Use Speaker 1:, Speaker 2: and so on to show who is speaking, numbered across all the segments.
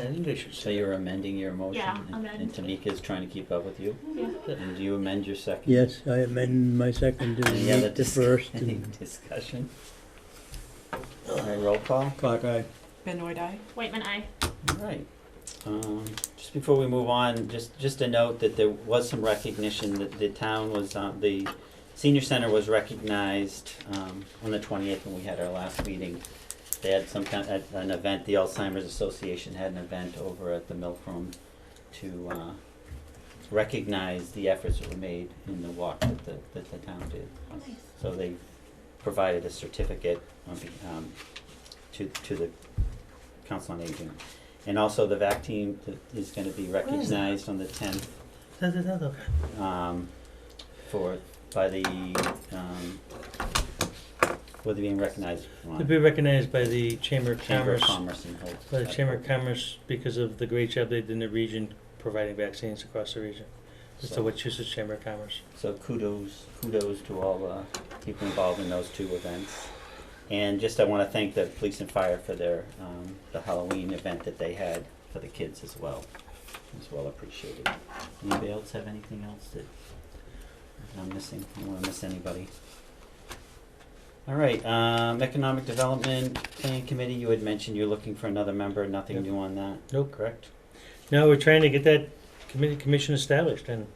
Speaker 1: I think we should
Speaker 2: So
Speaker 1: say
Speaker 2: you're
Speaker 1: you're amending your motion,
Speaker 2: Yeah,
Speaker 1: and-
Speaker 2: amend.
Speaker 1: and Tamika is trying to keep up with you.
Speaker 2: Yeah.
Speaker 1: And do you amend your second?
Speaker 3: Yes, I amend my second to
Speaker 1: Any other
Speaker 3: meet the
Speaker 1: dis-
Speaker 3: first
Speaker 1: any
Speaker 3: and
Speaker 1: discussion? All right, roll call.
Speaker 3: clock eye.
Speaker 4: Benoit eye?
Speaker 2: Waitman, I.
Speaker 1: All right. Um, just before we move on, just, just a note that there was some recognition that the town was, uh, the senior center was recognized, um, on the twentieth when we had our last meeting. They had some kind, at an event, the Alzheimer's Association had an event over at the Milk Room to, uh, recognize the efforts that were made in the walk that the, that the town did.
Speaker 2: Oh, nice.
Speaker 1: So they provided a certificate on be- um, to, to the Council on Aging. And also the VAC team th- is gonna be recognized on the tenth, um, for, by the, um, whether being recognized.
Speaker 5: To be recognized by the Chamber of
Speaker 1: Chamber of
Speaker 5: Commerce,
Speaker 1: Commerce and Health.
Speaker 5: by the Chamber of Commerce because of the great job they did in the region providing vaccines across the region. It's the
Speaker 1: So-
Speaker 5: Wachusett Chamber of Commerce.
Speaker 1: So kudos, kudos to all the people involved in those two events. And just I want to thank the police and fire for their, um, the Halloween event that they had for the kids as well. It's well appreciated. Anybody else have anything else that that I'm missing? I don't want to miss anybody. All right, um, Economic Development Plan Committee, you had mentioned you're looking for another member, nothing
Speaker 5: Yep.
Speaker 1: new on that,
Speaker 5: Nope.
Speaker 1: correct?
Speaker 5: No, we're trying to get that committee, commission established and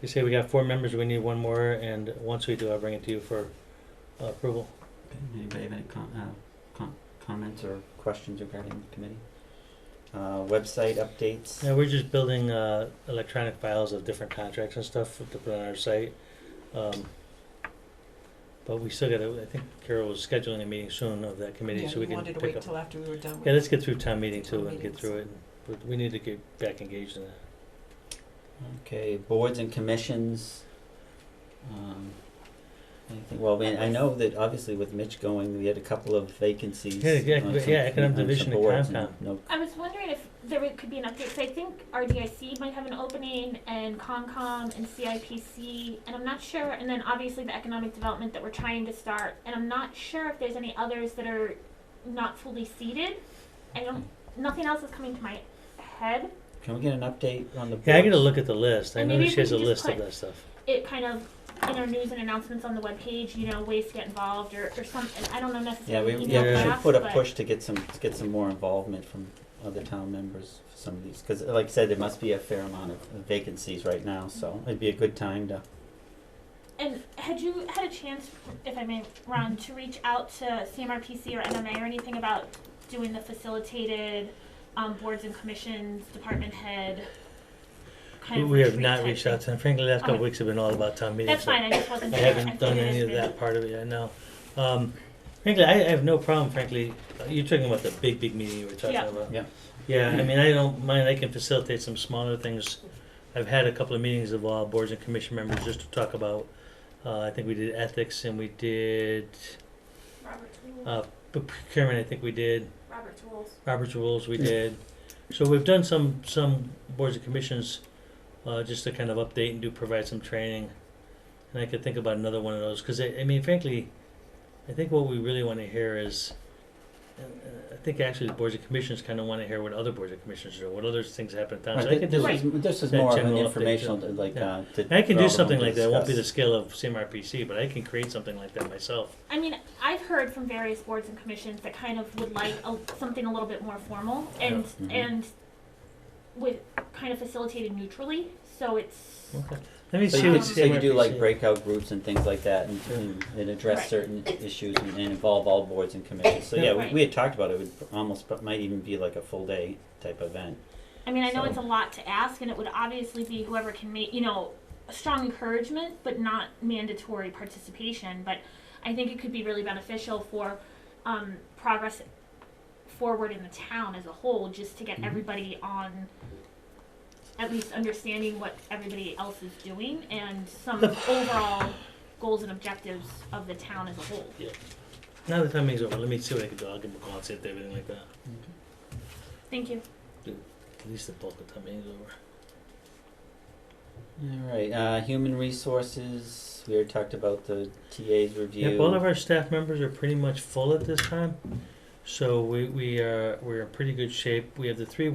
Speaker 5: they say we got four members, we need one more and once we do, I'll bring it to you for uh, approval.
Speaker 1: Anybody have any com- uh, com- comments or questions regarding the committee? Uh, website updates?
Speaker 5: Yeah, we're just building uh, electronic files of different contracts and stuff to put on our site. Um, but we still got to, I think Carol was scheduling a meeting soon of that committee,
Speaker 4: Yeah,
Speaker 5: so we can
Speaker 4: wanted to
Speaker 5: pick
Speaker 4: wait
Speaker 5: up.
Speaker 4: till after we were done with.
Speaker 5: Yeah, let's get through town meeting
Speaker 4: Town
Speaker 5: too and get
Speaker 4: meetings.
Speaker 5: through it, but we need to get back engaged in that.
Speaker 1: Okay, boards and commissions. Um, anything, well, we- I know that obviously with Mitch going, we had a couple of vacancies.
Speaker 5: Yeah, yeah,
Speaker 1: on some-
Speaker 5: yeah, Economic
Speaker 1: on some
Speaker 5: Division and
Speaker 1: boards
Speaker 5: Concom.
Speaker 1: No,
Speaker 2: I was wondering if there would- could be an update, 'cause I think RDIC might have an opening, and CONCOM, and CIPC, and I'm not sure, and then obviously the economic development that we're trying to start, and I'm not sure if there's any others that are not fully seated. I don't, nothing else is coming to my head.
Speaker 1: can we get an update on the boards?
Speaker 5: Yeah, I gotta look at the list, I
Speaker 2: And
Speaker 5: know
Speaker 2: maybe
Speaker 5: she
Speaker 2: if
Speaker 5: has
Speaker 2: we
Speaker 5: a
Speaker 2: could just
Speaker 5: list of
Speaker 2: put-
Speaker 5: that stuff.
Speaker 2: It kind of, in our news and announcements on the webpage, you know, ways to get involved, or, or something, I don't know
Speaker 1: Yeah,
Speaker 2: necessarily
Speaker 1: we,
Speaker 2: email
Speaker 1: yeah, we should
Speaker 2: blast,
Speaker 1: put a
Speaker 2: but-
Speaker 1: push to get some, to get some more involvement from other town members for some of these, cause like I said, there must be a fair amount of vacancies right now, so it'd be a good time to.
Speaker 2: And had you had a chance, if I may, Ron, to reach out to CMRPC or MMA or anything about doing the facilitated um, boards and commissions, department head? kind of
Speaker 5: We have
Speaker 2: retreat
Speaker 5: not
Speaker 2: type
Speaker 5: reached
Speaker 2: thing?
Speaker 5: out to them, frankly, the last couple
Speaker 2: Okay.
Speaker 5: weeks have been all about town meetings.
Speaker 2: That's
Speaker 5: so-
Speaker 2: fine, I just wasn't
Speaker 5: I
Speaker 2: sure.
Speaker 5: haven't done
Speaker 2: figured
Speaker 5: any
Speaker 2: it's
Speaker 5: of
Speaker 2: been-
Speaker 5: that part of it, I know. Um, frankly, I, I have no problem, frankly, uh, you're talking about the big, big meeting you were talking
Speaker 2: Yeah.
Speaker 5: about.
Speaker 1: Yeah.
Speaker 5: Yeah, I mean, I don't mind, I can facilitate some smaller things. I've had a couple of meetings of all boards and commission members just to talk about, uh, I think we did ethics and we did,
Speaker 2: Robert's rules.
Speaker 5: uh, procurement, I think we did,
Speaker 2: Robert's rules.
Speaker 5: Robert's rules we did. So we've done some, some boards and commissions, uh, just to kind of update and do provide some training. And I could think about another one of those, cause I, I mean frankly, I think what we really wanna hear is, uh, uh, I think actually the boards and commissions kinda wanna hear what other boards and commissions do, what other things happen in town. So I could do,
Speaker 1: This
Speaker 2: Right.
Speaker 1: is, this is
Speaker 5: that
Speaker 1: more of an
Speaker 5: general update,
Speaker 1: informational,
Speaker 5: yeah.
Speaker 1: like,
Speaker 5: Yeah.
Speaker 1: uh, to.
Speaker 5: I
Speaker 1: for all
Speaker 5: can do
Speaker 1: of them
Speaker 5: something
Speaker 1: to
Speaker 5: like that, it won't be the
Speaker 1: discuss.
Speaker 5: scale of CMRPC, but I can create something like that myself.
Speaker 2: I mean, I've heard from various boards and commissions that kind of would like a, something a little bit more formal and
Speaker 5: mm-hmm.
Speaker 1: Yeah. Mhm.
Speaker 2: and with kind of facilitated neutrally. So it's
Speaker 5: Let me
Speaker 1: So
Speaker 5: see
Speaker 1: you
Speaker 2: Um,
Speaker 5: what
Speaker 1: could, so you do like
Speaker 5: CMRPC
Speaker 1: breakout groups and things like that and, and, and address
Speaker 2: Right.
Speaker 1: certain issues and, and involve all boards and commissions. So yeah, we,
Speaker 2: Right.
Speaker 1: we had talked about it, it would almost, but might even be like a full day type event.
Speaker 2: I mean, I know
Speaker 1: So-
Speaker 2: it's a lot to ask, and it would obviously be whoever can make, you know, a strong encouragement, but not mandatory participation. But I think it could be really beneficial for um, progress forward in the town as a whole, just to get
Speaker 1: Mhm.
Speaker 2: everybody on at least understanding what everybody else is doing and some overall goals and objectives of the town as a whole.
Speaker 5: Now the timing's over, let me see what I can do, I'll give them a call and see if they have anything like that,
Speaker 2: Thank you.
Speaker 5: at least the bulk of the timing is over.
Speaker 1: All right, uh, human resources, we already talked about the TA's review.
Speaker 5: Yep, all of our staff members are uh, pretty much full at this time, so we, we are, we're in pretty good shape. We have the three